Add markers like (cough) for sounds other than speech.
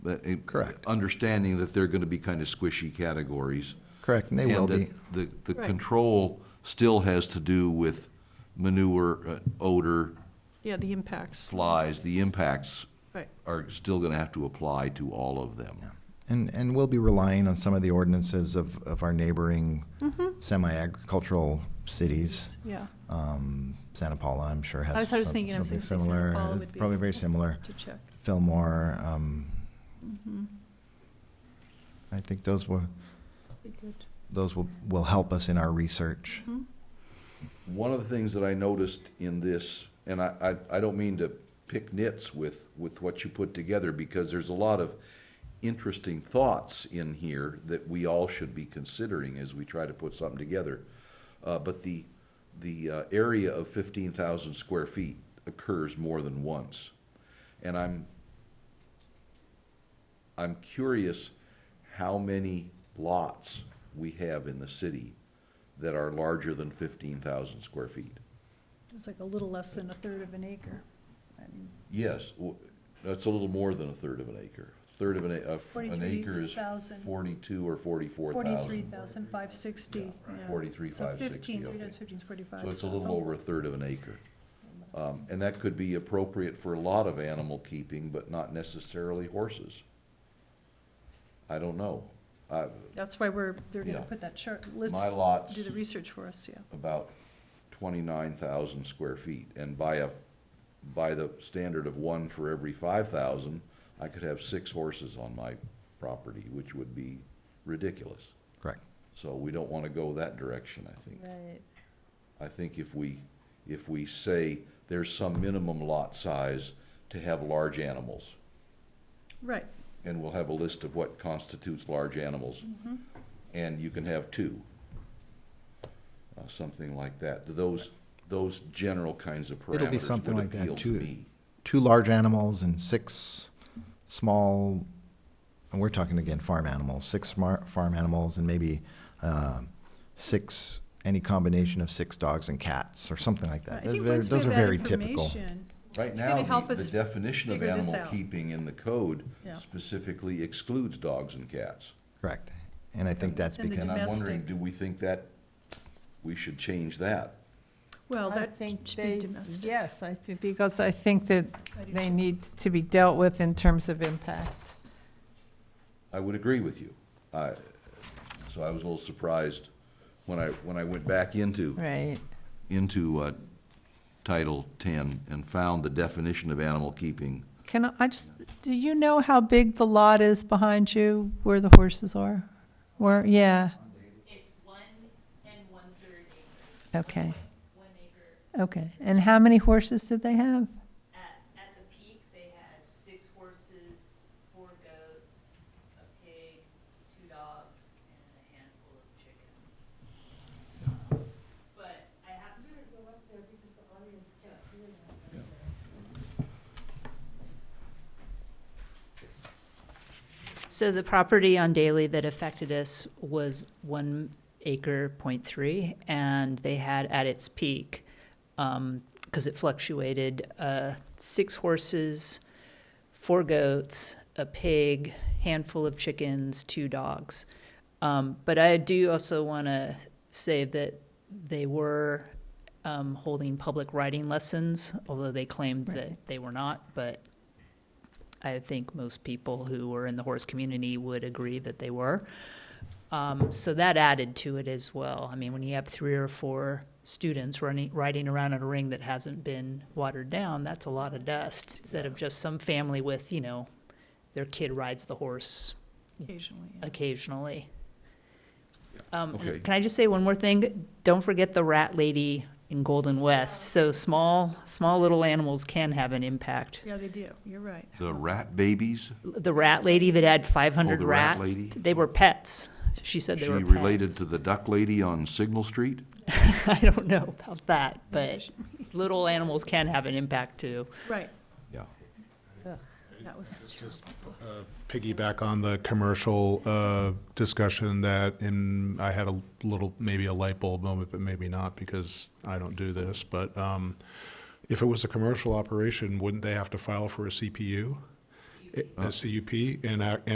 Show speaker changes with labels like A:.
A: But it-
B: Correct.
A: eh, Understanding that they're going to be kind of squishy categories.
B: Correct, and they will
A: that
B: be.
A: The, the
C: Right.
A: control still has to do with manure, uh, odor,
C: Yeah, the impacts,
A: flies, the impacts
C: right.
A: are still going to have to apply to all of them.
B: And, and we'll be relying on some of the ordinances of, of our neighboring
C: Mm-hmm.
B: semi-agricultural cities.
C: Yeah,
B: Um, Santa Paula, I'm sure,
C: I was-
B: has
C: I was
B: some-
C: thinking, I was
B: something
C: gonna say Santa
B: similar.
C: Paula
B: Uh,
C: would be-
B: Probably very similar.
C: to check.
B: Fillmore, um,
C: Mm-hmm.
B: I think those will,
C: Be good.
B: those will, will help us in our research.
C: Mm-hmm.
A: One of the things that I noticed in this, and I, I, I don't mean to pick nits with, with what you put together, because there's a lot of interesting thoughts in here that we all should be considering as we try to put something together. Uh, but the, the uh, area of fifteen thousand square feet occurs more than once. And I'm, I'm curious how many lots we have in the city that are larger than fifteen thousand square feet.
C: It's like a little less than a third of an acre. I mean,
A: Yes, w- that's a little more than a third of an acre. Third of an, a- of an acre is
C: 43,000.
A: forty-two or forty-four
C: Forty-three
A: thousand.
C: thousand five sixty.
A: Forty-three,
C: So
A: five sixty,
C: fifteen, three
A: okay.
C: times fifteen is forty-five.
A: So it's a little over a third of an acre. Um, and that could be appropriate for a lot of animal keeping, but not necessarily horses. I don't know. I,
C: That's why we're, they're gonna
A: Yeah.
C: put that chart, list,
A: my lot's
C: do the research for us, yeah.
A: about twenty-nine thousand square feet, and by a, by the standard of one for every five thousand, I could have six horses on my property, which would be ridiculous.
B: Correct.
A: So we don't want to go that direction, I think.
C: Right.
A: I think if we, if we say there's some minimum lot size to have large animals,
C: Right,
A: and we'll have a list of what constitutes large animals,
C: Mm-hmm.
A: and you can have two, uh, something like that. Those, those general kinds of
B: It'll be
A: parameters
B: something
A: would
B: like that,
A: appeal to
B: too.
A: me.
B: Two large animals and six small, and we're talking again, farm animals, six smart farm animals and maybe, uh, six, any combination of six dogs and cats or something like
C: I
B: that. Those
C: think
B: are very-
C: once we
B: Those
C: have
B: are
C: that
B: very typical.
C: information,
A: Right
C: It's gonna
A: now,
C: help
A: the- the
C: us
A: definition of
C: figure this
A: animal
C: out.
A: keeping in the code
C: Yeah.
A: specifically excludes dogs and cats.
B: Correct. And I think that's
C: And the
B: because,
A: And I'm wondering,
C: Domestic.
A: do we think that, we should change that?
C: well,
D: I
C: that
D: think
C: should
D: they-
C: be domestic.
D: Yes, I think, because I think that
C: I do
D: they
C: too.
D: need to be dealt with in terms of impact.
A: I would agree with you. I, so I was a little surprised when I, when I went back into
D: Right.
A: into uh, Title 10 and found the definition of animal keeping.
D: Can I- I just, do you know how big the lot is behind you where the horses are? Where, yeah,
E: It's one and one-third acre,
D: okay,
E: one acre.
D: okay. And how many horses did they have?
E: At, at the peak, they had six horses, four goats, a pig, two dogs, and a handful of chickens. Um, But I have. I'm gonna go up there because the audience can't hear that.
F: So the property on Daly that affected us was one acre point three, and they had at its peak, because um, it fluctuated, uh, six horses, four goats, a pig, handful of chickens, two dogs. Um, but I do also want to say that they were um, holding public writing lessons, although they claimed
D: Right.
F: that they were not. But I think most people who were in the horse community would agree that they were. Um, so that added to it as well. I mean, when you have three or four students running, riding around in a ring that hasn't been watered down, that's a lot of dust. Instead of just some family with, you know, their kid rides the horse
C: Occasionally, yeah.
F: occasionally. Um, and
A: Okay.
F: Can I just say one more thing? Don't forget the rat lady in Golden West. So small, small little animals can have an impact.
C: Yeah, they do, you're right.
A: The rat babies?
F: The rat lady that had five hundred
A: Oh, the rat
F: rats,
A: lady?
F: they were pets. She said
A: She
F: they were pets.
A: related to the duck lady on Signal Street?
F: (laughs) I don't know about that, but little animals can have an impact too.
C: Right,
A: Yeah.
C: that was
G: piggyback on the commercial uh, discussion that, and I had a little, maybe a light bulb moment, but maybe not because I don't do this, but um, if it was a commercial operation, wouldn't they have to file for a CPU? a CUP, and I-